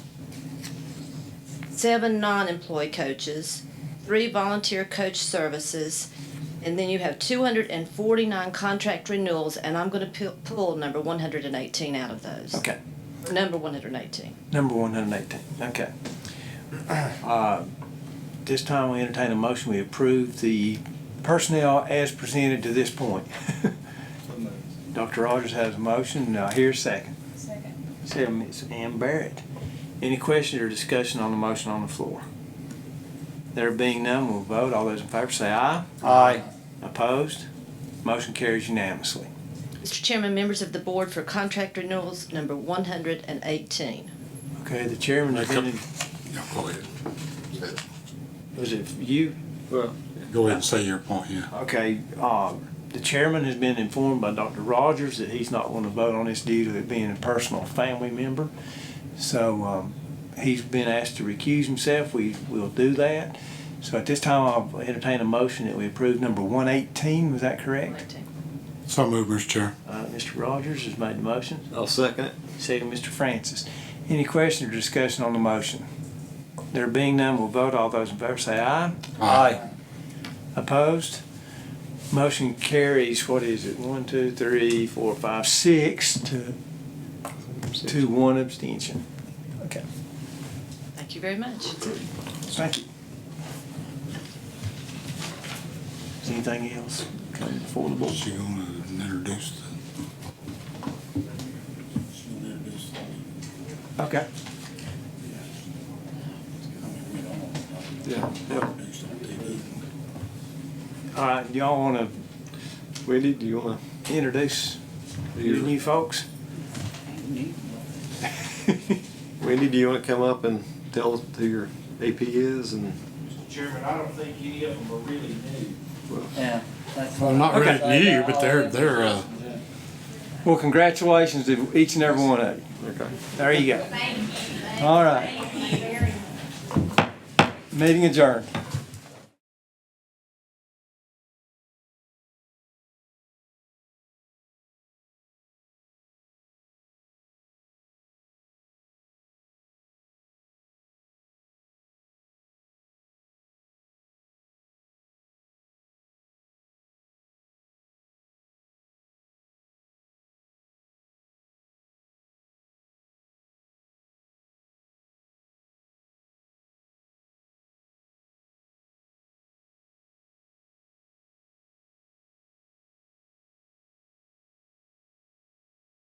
seven non-employee coaches, three volunteer coach services, and then you have 249 contract renewals, and I'm going to pull number 118 out of those. Okay, Number 118. number one hundred and eighteen, okay. Uh, This time we entertain a motion, we approve the personnel as presented to this point. Dr. Rogers has a motion, now here's second. Second. Second, Ms. Ann Barrett. Any questions or discussion on the motion on the floor? There being none, we'll vote. All those in favor say aye. Aye. Opposed? Motion carries unanimously. Mr. Chairman, members of the board for contract renewals, number 118. Okay, the chairman has been, Yeah, go ahead. was it you? Go ahead and say your point, yeah. Okay, uh, the chairman has been informed by Dr. Rogers that he's not going to vote on this due to it being a personal family member. So um, he's been asked to recuse himself. We will do that. So at this time, I'll entertain a motion that we approve number 118. Was that correct? 118. So move, Mr. Chair. Uh, Mr. Rogers has made the motion. I'll second it. Second, Mr. Francis. Any question or discussion on the motion? There being none, we'll vote. All those in favor say aye. Opposed? Motion carries, what is it, one, two, three, four, five, six to, to one abstention. Okay, Thank you very much. thank you. Is anything else coming before the board? She gonna introduce the. She gonna introduce the. Okay. I mean, we don't want to Yeah, yeah. introduce on TV. All right, y'all wanna Wendy, do you wanna? introduce your new folks? Wendy, do you wanna come up and tell us who your AP is and? Mr. Chairman, I don't think any of them are really new. Yeah, that's Well, not Okay. really you, but they're, they're, uh, Well, congratulations to each and every one of you. Okay. There you go. Thank you. All right. Thank you very much. Meeting adjourned.